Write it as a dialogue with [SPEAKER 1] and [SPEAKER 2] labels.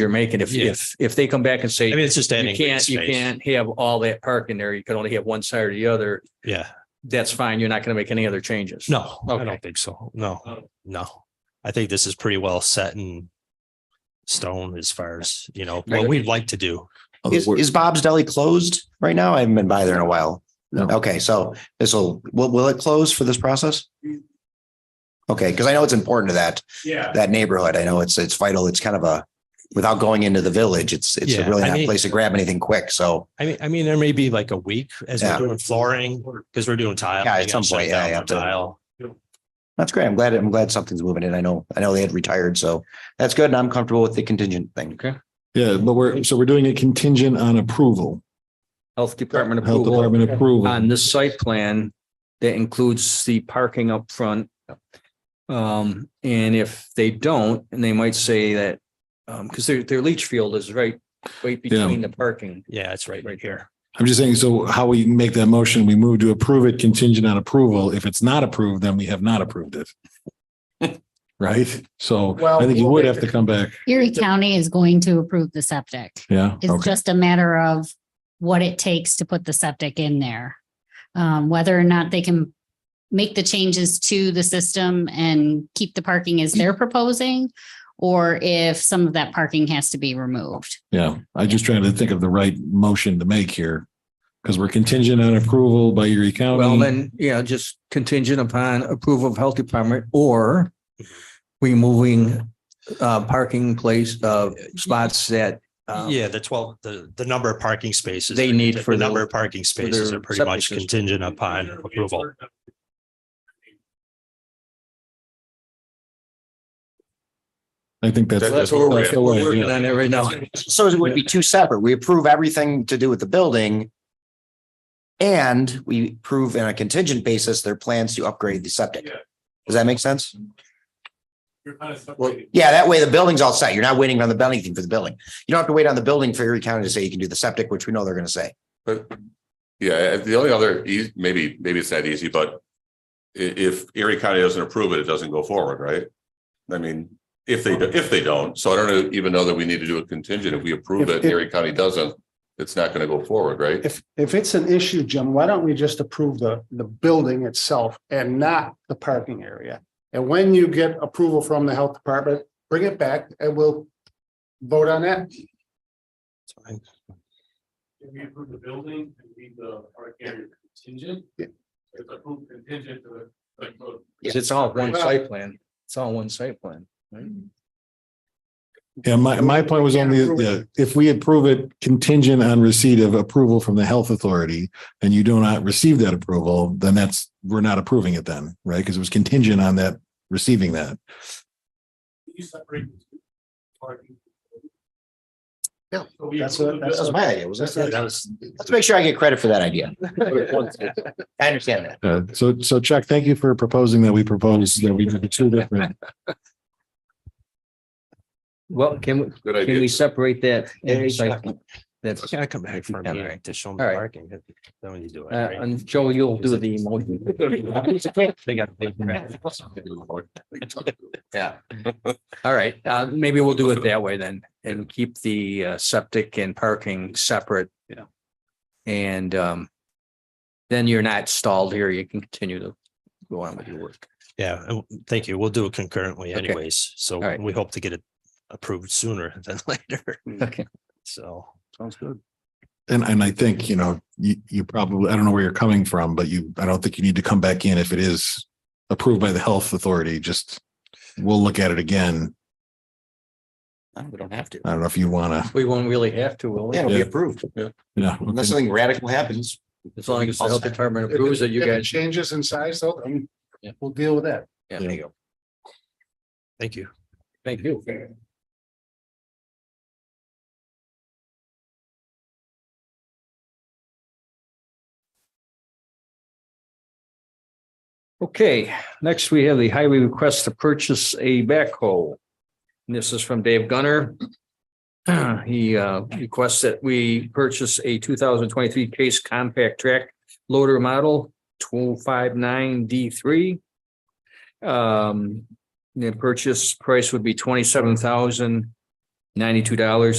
[SPEAKER 1] you're making. If,
[SPEAKER 2] Yeah.
[SPEAKER 1] if, if they come back and
[SPEAKER 2] I
[SPEAKER 1] say,
[SPEAKER 2] mean, it's just
[SPEAKER 1] you
[SPEAKER 2] adding. green
[SPEAKER 1] can't, you
[SPEAKER 2] space.
[SPEAKER 1] can't have all that parking there. You can only have one side or the other.
[SPEAKER 2] Yeah,
[SPEAKER 1] That's fine. You're not going to make any other changes.
[SPEAKER 2] no, I
[SPEAKER 1] Okay. Oh.
[SPEAKER 2] don't think so. No, no. I think this is pretty well set in stone as far as, you know, what we'd like to do.
[SPEAKER 3] Other
[SPEAKER 4] Is,
[SPEAKER 3] words-
[SPEAKER 4] is Bob's Deli closed right now? I haven't been by there in a while.
[SPEAKER 3] No.
[SPEAKER 4] Okay, so this will, will, will it close for this process? Okay, because I know it's important to that,
[SPEAKER 5] Yeah.
[SPEAKER 4] that neighborhood. I know it's, it's vital. It's kind of a, without going into the village, it's, it's a
[SPEAKER 2] Yeah,
[SPEAKER 4] really
[SPEAKER 2] I
[SPEAKER 4] nice
[SPEAKER 2] mean-
[SPEAKER 4] place to grab anything quick. So
[SPEAKER 2] I mean, I mean, there may be like a week as we're
[SPEAKER 4] Yeah.
[SPEAKER 2] doing flooring, because we're doing tile.
[SPEAKER 4] Yeah,
[SPEAKER 2] we
[SPEAKER 4] at
[SPEAKER 2] gotta
[SPEAKER 4] some
[SPEAKER 2] shut
[SPEAKER 4] point, yeah,
[SPEAKER 2] down
[SPEAKER 4] yeah,
[SPEAKER 2] the
[SPEAKER 4] to-
[SPEAKER 2] Tile.
[SPEAKER 4] that's great. I'm glad, I'm glad something's moving in. I know, I know they had retired, so that's good. And I'm comfortable with the contingent thing.
[SPEAKER 1] Okay.
[SPEAKER 3] Yeah, but we're, so we're doing it contingent on approval,
[SPEAKER 1] Health Department
[SPEAKER 3] Health
[SPEAKER 1] approval
[SPEAKER 3] Department approval.
[SPEAKER 1] on this site plan that includes the parking up front. Um, and if they don't, and they might say that, um, because their, their leach field is right, right between the parking.
[SPEAKER 2] Yeah, it's right,
[SPEAKER 1] Right.
[SPEAKER 2] right here.
[SPEAKER 3] I'm just saying, so how we make that motion, we move to approve it contingent on approval. If it's not approved, then we have not approved it. Right? So I think you would have to come back.
[SPEAKER 6] Erie County is going to approve the septic.
[SPEAKER 3] Yeah.
[SPEAKER 6] It's
[SPEAKER 3] Okay.
[SPEAKER 6] just a matter of what it takes to put the septic in there. Um, whether or not they can make the changes to the system and keep the parking as they're proposing. Or if some of that parking has to be removed.
[SPEAKER 3] Yeah. I just trying to think of the right motion to make here. Because we're contingent on approval by Erie County.
[SPEAKER 1] Well, then, yeah, just contingent upon approval of Health Department or removing, uh, parking place, uh, spots that. um,
[SPEAKER 2] Yeah, the twelve, the, the number of parking spaces.
[SPEAKER 1] They
[SPEAKER 2] are-
[SPEAKER 1] need
[SPEAKER 2] the
[SPEAKER 1] for
[SPEAKER 2] number
[SPEAKER 1] their-
[SPEAKER 2] of parking spaces
[SPEAKER 1] their
[SPEAKER 2] are pretty
[SPEAKER 1] septic
[SPEAKER 2] much
[SPEAKER 1] system.
[SPEAKER 2] contingent upon approval.
[SPEAKER 3] I think that's.
[SPEAKER 1] That's what we're,
[SPEAKER 3] that's the way,
[SPEAKER 1] we're working
[SPEAKER 3] yeah.
[SPEAKER 1] on it right now.
[SPEAKER 4] So it would be two separate. We approve everything to do with the building. And we approve on a contingent basis their plans to upgrade the septic. Does that make sense?
[SPEAKER 5] You're kind of
[SPEAKER 1] Well,
[SPEAKER 5] separated.
[SPEAKER 4] Yeah, that way the building's all set. You're not waiting on the building thing for the building. You don't have to wait on the building for Erie County to say you can do the septic, which we know they're gonna say.
[SPEAKER 7] But yeah, the only other, eas- maybe, maybe it's not easy, but i- if Erie County doesn't approve it, it doesn't go forward, right? I mean, if they, do- if they don't, so I don't know- even know that we need to do a contingent. If we approve
[SPEAKER 8] If-
[SPEAKER 7] it,
[SPEAKER 8] if-
[SPEAKER 7] Erie County doesn't, it's not going to go forward, right?
[SPEAKER 8] If, if it's an issue, Jim, why don't we just approve the, the building itself and not the parking area? And when you get approval from the health department, bring it back and we'll vote on that.
[SPEAKER 5] If we approve the building and leave the park area contingent.
[SPEAKER 8] Yeah.
[SPEAKER 5] If approved contingent to the, like, the-
[SPEAKER 1] It's all one site plan. It's all one site plan.
[SPEAKER 3] Yeah, my, my point was on the, yeah, if we approve it contingent on receipt of approval from the health authority and you do not receive that approval, then that's, we're not approving it then, right? Because it was contingent on that, receiving that.
[SPEAKER 5] you separate the two. Parking.
[SPEAKER 8] Yeah,
[SPEAKER 5] So we
[SPEAKER 8] that's
[SPEAKER 5] approve
[SPEAKER 8] what-
[SPEAKER 5] the
[SPEAKER 4] That
[SPEAKER 8] that's
[SPEAKER 4] was
[SPEAKER 5] building.
[SPEAKER 4] my idea, was
[SPEAKER 8] That's
[SPEAKER 4] that?
[SPEAKER 8] it.
[SPEAKER 4] Let's make sure I get credit for that idea. I understand that.
[SPEAKER 3] Uh, so, so Chuck, thank you for proposing that we propose that we do two different.
[SPEAKER 1] Well, can, we
[SPEAKER 7] Good
[SPEAKER 1] can we
[SPEAKER 7] idea.
[SPEAKER 1] separate that?
[SPEAKER 2] Yeah,
[SPEAKER 1] site plan? That's, uh,
[SPEAKER 2] Gotta come back for
[SPEAKER 1] Yeah,
[SPEAKER 2] me
[SPEAKER 1] right.
[SPEAKER 2] to show them
[SPEAKER 1] All right.
[SPEAKER 2] parking. Then when you do it.
[SPEAKER 1] uh,
[SPEAKER 2] right?
[SPEAKER 1] and Joe, you'll do the emoji.
[SPEAKER 2] They got. big-
[SPEAKER 1] Yeah. All right, uh, maybe we'll do it that way then and keep the uh, septic and parking separate.
[SPEAKER 5] Yeah.
[SPEAKER 1] And, um, then you're not stalled here. You can continue to go on with your work.
[SPEAKER 2] Yeah, and w- thank you. We'll do it concurrently
[SPEAKER 1] Okay.
[SPEAKER 2] anyways. So
[SPEAKER 1] right.
[SPEAKER 2] we hope to get it approved sooner than later.
[SPEAKER 1] Okay.
[SPEAKER 2] So.
[SPEAKER 1] Sounds good.
[SPEAKER 3] And, and I think, you know, you, you probably, I don't know where you're coming from, but you, I don't think you need to come back in if it is approved by the health authority, just we'll look at it again.
[SPEAKER 4] We don't have to.
[SPEAKER 3] I don't know if you want to,
[SPEAKER 1] We won't really have to, will we?
[SPEAKER 4] Yeah, it'll be approved.
[SPEAKER 3] you know.
[SPEAKER 4] Unless something radical happens.
[SPEAKER 1] As long as the health department approves that you
[SPEAKER 8] If it
[SPEAKER 1] guys.
[SPEAKER 8] Changes in size, though, um,
[SPEAKER 1] Yeah.
[SPEAKER 8] we'll deal with that.
[SPEAKER 1] Yeah, there you go.
[SPEAKER 2] Thank you.
[SPEAKER 1] Thank you. Okay, next we have the highway request to purchase a backhoe. And This is from Dave Gunner. He uh, requests that we purchase a two thousand twenty-three case compact track loader model two five nine D three. Um, the purchase price would be twenty-seven thousand ninety-two dollars